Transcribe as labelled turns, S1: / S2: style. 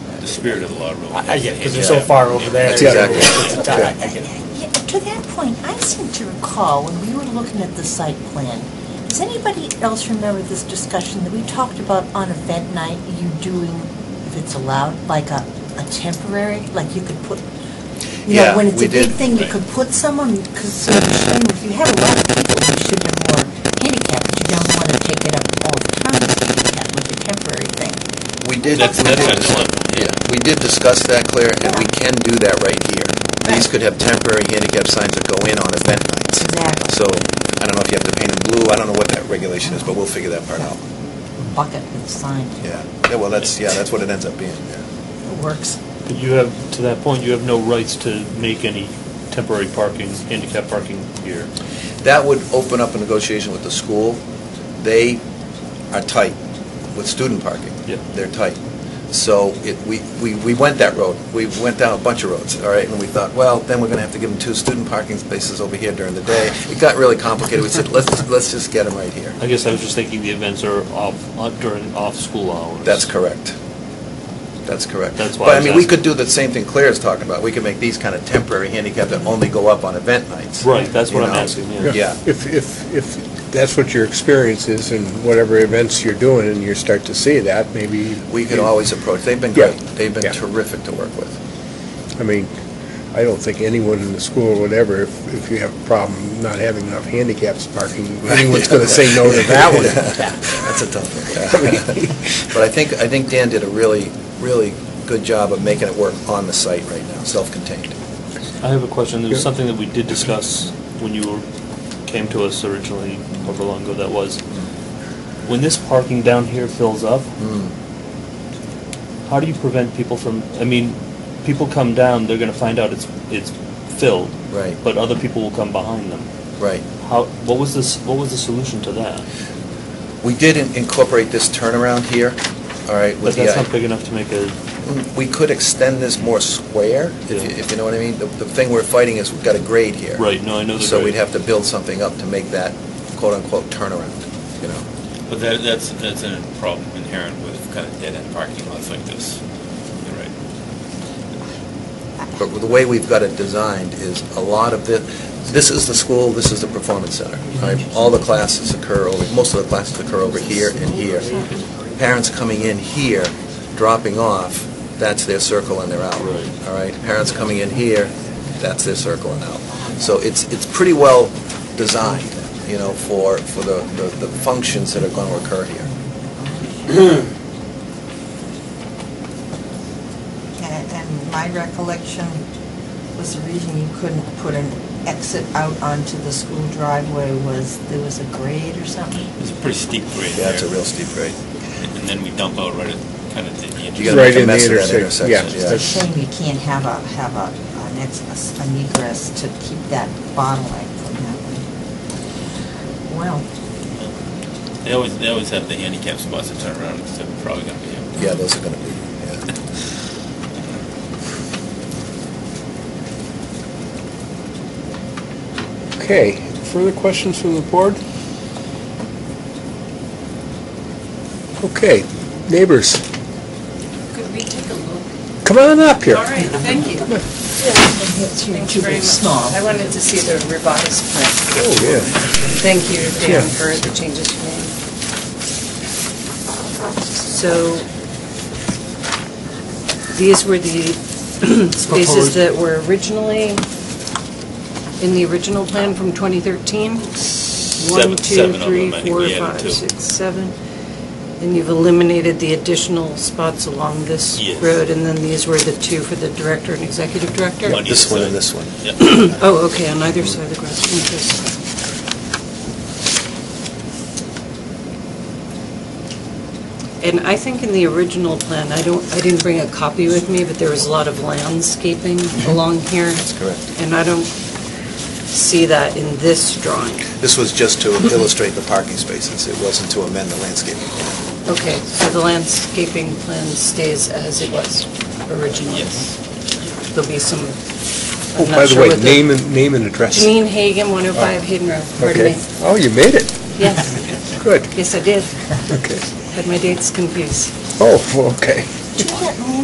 S1: the spirit of the law rule.
S2: I I get it, because they're so far over there.
S1: That's
S2: you know,
S3: exactly
S2: it's a tie.
S3: Yeah.
S2: I get it.
S4: Yeah, To that point, I seem to recall when we were looking at the site plan, does anybody else remember this discussion that we talked about on event night, you doing, if it's allowed, like a, a temporary, like you could put, you
S3: Yeah,
S4: know, when it's
S3: we
S4: a big
S3: did.
S4: thing, you
S1: Right.
S4: could put someone, because if you have a lot of people, you should have more handicap, but you don't want to take it up all the time, handicap with a temporary thing.
S3: We did, we
S1: That's- that's
S3: did,
S1: what I
S3: dis-
S1: thought, yeah.
S3: yeah, we did discuss that, Claire, and we can do that right here. These could have temporary handicap signs that go in on event nights.
S4: Exactly.
S3: So, I don't know if you have to paint them blue, I don't know what that regulation is, but we'll figure that part out.
S4: Bucket with sign,
S3: Yeah, Yeah, well, that's, yeah, that's what it ends up being, yeah.
S4: it works.
S5: But you have, to that point, you have no rights to make any temporary parking, handicap parking here.
S3: That would open up a negotiation with the school. They are tight with student parking.
S5: Yeah.
S3: They're tight. So it, we, we, we went that road. We went down a bunch of roads, all right? And we thought, well, then we're gonna have to give them two student parking spaces over here during the day. It got really complicated. We said, let's, let's just get them right here.
S5: I guess I was just thinking the events are off, uh, during off-school hours.
S3: That's correct. That's correct.
S5: That's why I
S3: But I
S5: was
S3: mean, we
S5: asking.
S3: could do the same thing Claire is talking about. We could make these kind of temporary handicap that only go up on event nights.
S5: Right, that's what
S3: you
S5: I'm
S3: know?
S5: asking, yeah.
S3: Yeah.
S6: If, if, if that's what your experience is in whatever events you're doing and you start to see that, maybe.
S3: We could always approach, they've been
S6: Yeah.
S3: great. They've
S6: Yeah.
S3: been terrific to work with.
S6: I mean, I don't think anyone in the school or whatever, if, if you have a problem not having enough handicaps parking, anyone's gonna say no to that one.
S3: That's a tough one. But I think, I think Dan did a really, really good job of making it work on the site right now, self-contained.
S5: I have a question. There was
S6: Yeah.
S5: something that we did discuss when you were, came to us originally, however long ago that was. When this parking down here fills up, how do you prevent people from, I mean, people come down, they're gonna find out it's, it's filled.
S3: Right.
S5: But other people will come behind them.
S3: Right.
S5: How, what was this, what was the solution to that?
S3: We did in- incorporate this turnaround here, all right?
S5: But
S3: with the
S5: that's
S3: I- Mm,
S5: not big enough to make a,
S3: We could extend this more square, if you-
S5: Yeah.
S3: if you know what I mean. The the thing we're fighting is we've got a grade here.
S5: right, no, I know the
S3: So we'd
S5: grade.
S3: have to build something up to make that quote-unquote turnaround, you know?
S1: But that, that's, that's a problem inherent with kind of dead-end parking lots like this. You're right.
S3: But the way we've got it designed is a lot of the, this is the school, this is the performance center. all right? All the classes occur, over most of the classes occur over here and here. Parents coming in here, dropping off, that's their circle and they're out.
S5: Right.
S3: All right? Parents coming in here, that's their circle and out. So it's, it's pretty well designed, you know, for, for the, the the functions that are going to occur here.
S4: And and my recollection was the reason you couldn't put an exit out onto the school driveway was there was a grade or something?
S1: It's a pretty steep grade
S3: Yeah, it's a
S1: there.
S3: real steep grade.
S1: And and then we dump out right at kind of the the
S3: You gotta make
S6: Right
S3: a
S6: in the
S3: mess of that
S6: intersection,
S3: intersection,
S6: yeah.
S3: yeah.
S4: It's a shame you can't have a, have a, an ex- an egress to keep that bottleneck from happening. Well,
S1: They always, they always have the handicap spots to turn around, so they're probably gonna be empty.
S3: Yeah, those are going to be, yeah.
S6: Okay, further questions from the board? Okay, neighbors,
S7: Could we take a look?
S6: come on up here.
S7: All right, thank you. Thank you very much. I wanted to see the revised plan.
S6: Oh, yeah.
S7: Thank you,
S6: Yeah.
S7: Dan, for the changes you made. So these were the spaces that were originally in the original plan from 2013?
S1: Seven-
S7: One, two,
S1: seven of them,
S7: three,
S1: I think
S7: four,
S1: we added
S7: five,
S1: two.
S7: six, seven. And you've eliminated the additional spots along this
S1: Yes.
S7: road, and then these were the two for the director and executive director?
S1: On either
S3: This one and
S1: side.
S3: this one.
S1: Yeah.
S7: Oh, okay, on either side of the grass, interesting. And I think in the original plan, I don't, I didn't bring a copy with me, but there was a lot of landscaping
S6: Mm-hmm.
S7: along here. That's
S3: correct.
S7: And I don't see that in this drawing.
S3: This was just to illustrate the parking spaces. It wasn't to amend the landscape.
S7: Okay, so the landscaping plan stays as it was originally?
S1: Yes.
S7: There'll be some,
S6: Oh,
S7: I'm
S6: by
S7: not
S6: the
S7: sure
S6: way,
S7: what the...
S6: name and, name and address.
S7: Janine Hagan, 105 Hayden Road, pardon
S6: Okay.
S7: me.
S6: Oh, you made it.
S7: Yes,
S6: Good,
S7: yes, I did.
S6: okay.
S7: Had my dates confused.
S6: Oh, okay.
S4: do you get land